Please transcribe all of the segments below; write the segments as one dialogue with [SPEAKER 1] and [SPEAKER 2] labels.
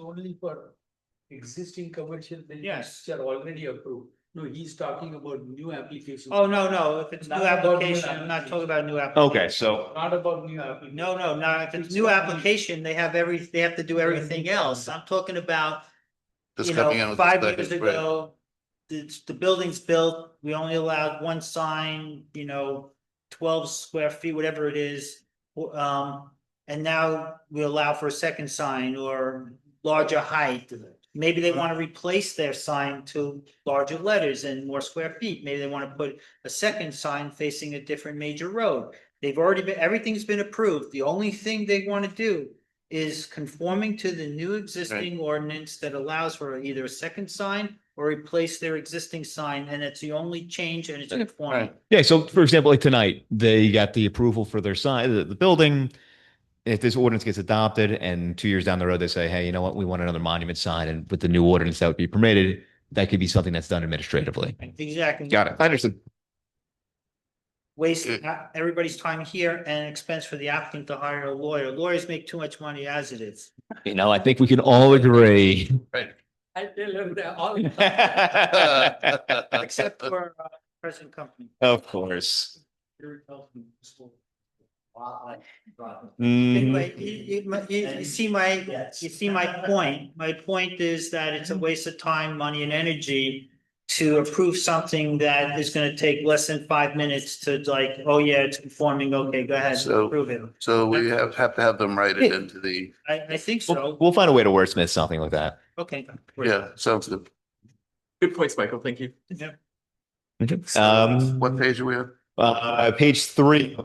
[SPEAKER 1] only for existing commercial buildings
[SPEAKER 2] Yes.
[SPEAKER 1] which are already approved. No, he's talking about new applications.
[SPEAKER 2] Oh, no, no, if it's new
[SPEAKER 1] Not about new
[SPEAKER 2] application, I'm not talking about new application.
[SPEAKER 3] Okay, so
[SPEAKER 1] Not about new applications.
[SPEAKER 2] No, no, no, if it's new application, they have every, they have to do everything else. I'm talking about,
[SPEAKER 4] That's
[SPEAKER 2] you
[SPEAKER 4] coming out
[SPEAKER 2] know,
[SPEAKER 4] of the
[SPEAKER 2] five
[SPEAKER 4] second
[SPEAKER 2] years
[SPEAKER 4] grade.
[SPEAKER 2] ago. The, the building's built, we only allowed one sign, you know, twelve square feet, whatever it is. w- Um, and now we allow for a second sign or larger height. Maybe they want to replace their sign to larger letters and more square feet. Maybe they want to put a second sign facing a different major road. They've already been, everything's been approved. The only thing they want to do is conforming to the new existing ordinance that allows for either a second sign or replace their existing sign, and it's the only change and it's conforming.
[SPEAKER 4] Right.
[SPEAKER 3] yeah, so for example, like tonight, they got the approval for their sign, the, the building. If this ordinance gets adopted and two years down the road, they say, hey, you know what, we want another monument sign, and with the new ordinance that would be permitted, that could be something that's done administratively.
[SPEAKER 2] Exactly.
[SPEAKER 3] Got it. I understand.
[SPEAKER 2] Waste
[SPEAKER 4] Good.
[SPEAKER 2] ha- everybody's time here and expense for the applicant to hire a lawyer. Lawyers make too much money as it is.
[SPEAKER 3] You know, I think we can all agree.
[SPEAKER 1] I tell him that all.
[SPEAKER 2] Except for uh, present company.
[SPEAKER 3] Of course. Mm-hmm.
[SPEAKER 2] Anyway, you, you, my- you- you see my, you see my point. My point is that it's a waste of time, money and energy to approve something that is gonna take less than five minutes to like, oh yeah, it's conforming, okay, go ahead,
[SPEAKER 4] So-
[SPEAKER 2] approve it.
[SPEAKER 4] So we have, have to have them write it into the,
[SPEAKER 2] I, I think
[SPEAKER 3] We'll,
[SPEAKER 2] so.
[SPEAKER 3] we'll find a way to wordsmith something like that.
[SPEAKER 2] Okay.
[SPEAKER 4] yeah, sounds good.
[SPEAKER 5] Good points, Michael. Thank you.
[SPEAKER 3] Um,
[SPEAKER 4] What page are we on?
[SPEAKER 3] uh, page three.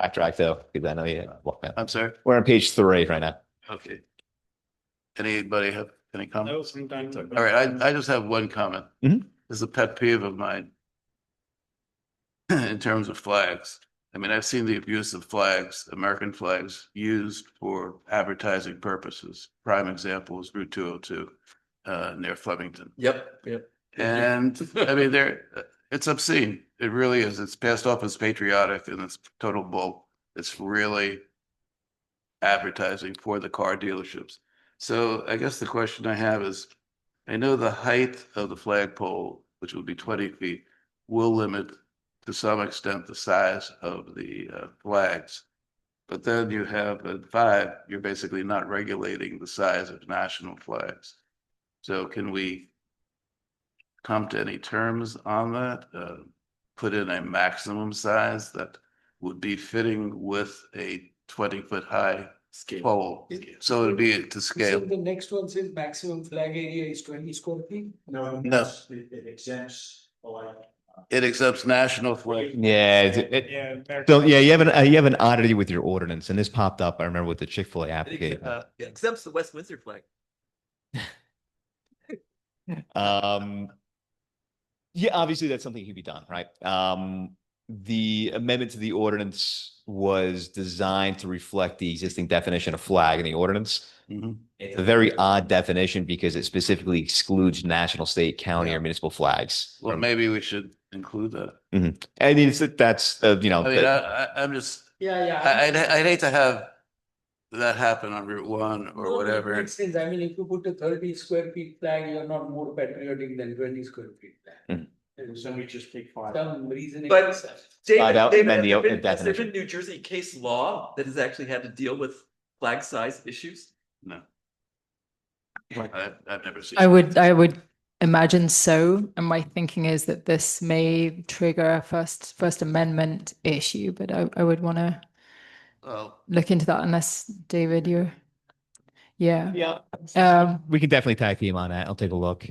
[SPEAKER 3] Backtrack though, because I know you.
[SPEAKER 4] I'm sorry,
[SPEAKER 3] We're on page three right now.
[SPEAKER 4] okay. Anybody have any
[SPEAKER 2] No,
[SPEAKER 4] comments?
[SPEAKER 2] I'm done.
[SPEAKER 4] All right, I, I just have one comment.
[SPEAKER 3] Mhm.
[SPEAKER 4] This is a pet peeve of mine. In terms of flags, I mean, I've seen the abuse of flags, American flags, used for advertising purposes. Prime example is Route two oh two, uh, near Flemington.
[SPEAKER 5] Yep, yep.
[SPEAKER 4] And I mean, there, it's obscene. It really is. It's passed off as patriotic and it's total bull. It's really advertising for the car dealerships. So I guess the question I have is, I know the height of the flagpole, which would be twenty feet, will limit to some extent the size of the uh, flags. But then you have at five, you're basically not regulating the size of national flags. So can we come to any terms on that? Uh, put in a maximum size that would be fitting with a twenty foot high
[SPEAKER 5] Scale.
[SPEAKER 4] pole. So it'd be to scale.
[SPEAKER 1] So the next one says maximum flag area is twenty square feet.
[SPEAKER 6] No.
[SPEAKER 4] No.
[SPEAKER 6] it's- It it exempts, like,
[SPEAKER 4] It accepts national flag.
[SPEAKER 3] Yeah, it- it-
[SPEAKER 2] Yeah.
[SPEAKER 3] so yeah, you have an, uh, you have an oddity with your ordinance and this popped up, I remember with the Chick-fil-A application.
[SPEAKER 5] Uh, Except the West Windsor flag.
[SPEAKER 3] Um, yeah, obviously that's something who be done, right? Um, the amendment to the ordinance was designed to reflect the existing definition of flag in the ordinance.
[SPEAKER 4] Mhm.
[SPEAKER 3] It's a very odd definition because it specifically excludes national, state, county, or municipal flags.
[SPEAKER 4] Well, maybe we should include that.
[SPEAKER 3] I mean, it's, that's, uh, you know,
[SPEAKER 4] I mean,
[SPEAKER 3] the-
[SPEAKER 4] I, I, I'm just,
[SPEAKER 1] Yeah, yeah.
[SPEAKER 3] Uh,
[SPEAKER 4] I, I'd, I'd hate to have that happen on Route one or whatever.
[SPEAKER 1] Makes sense. I mean, if you put a thirty square feet flag, you're not more patriotic than twenty square feet flag.
[SPEAKER 3] Mhm.
[SPEAKER 1] And
[SPEAKER 6] so we just take five.
[SPEAKER 1] Some reason.
[SPEAKER 5] But-
[SPEAKER 3] Five out,
[SPEAKER 5] David,
[SPEAKER 3] amend the
[SPEAKER 5] there's been-
[SPEAKER 3] definition.
[SPEAKER 5] there's been New Jersey case law that has actually had to deal with flag size issues.
[SPEAKER 4] No. Uh, I've, I've never seen.
[SPEAKER 7] I would, I would imagine so. And my thinking is that this may trigger a First, First Amendment issue, but I, I would want to
[SPEAKER 4] Well,
[SPEAKER 7] look into that unless, David, you're, yeah.
[SPEAKER 3] yeah,
[SPEAKER 7] Um,
[SPEAKER 3] we can definitely tag team on that. I'll take a look.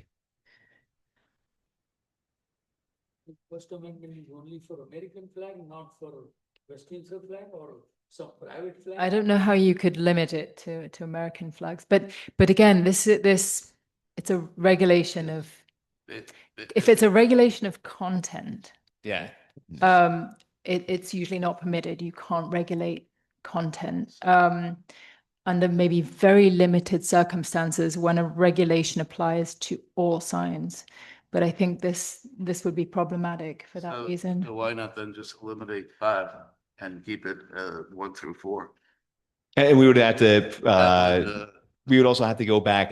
[SPEAKER 1] First Amendment is only for American flag, not for Westminster flag or some private flag.
[SPEAKER 7] I don't know how you could limit it to, to American flags, but, but again, this, is this, it's a regulation of,
[SPEAKER 4] it- it-
[SPEAKER 7] if it's a regulation of content,
[SPEAKER 3] Yeah.
[SPEAKER 7] um, it, it's usually not permitted. You can't regulate content. Um, under maybe very limited circumstances when a regulation applies to all signs. But I think this, this would be problematic for that
[SPEAKER 4] So-
[SPEAKER 7] reason.
[SPEAKER 4] so Why not then just eliminate five and keep it, uh, one through four?
[SPEAKER 3] And we would have to,
[SPEAKER 4] That
[SPEAKER 3] uh,
[SPEAKER 4] would, uh,
[SPEAKER 3] we would also have to go back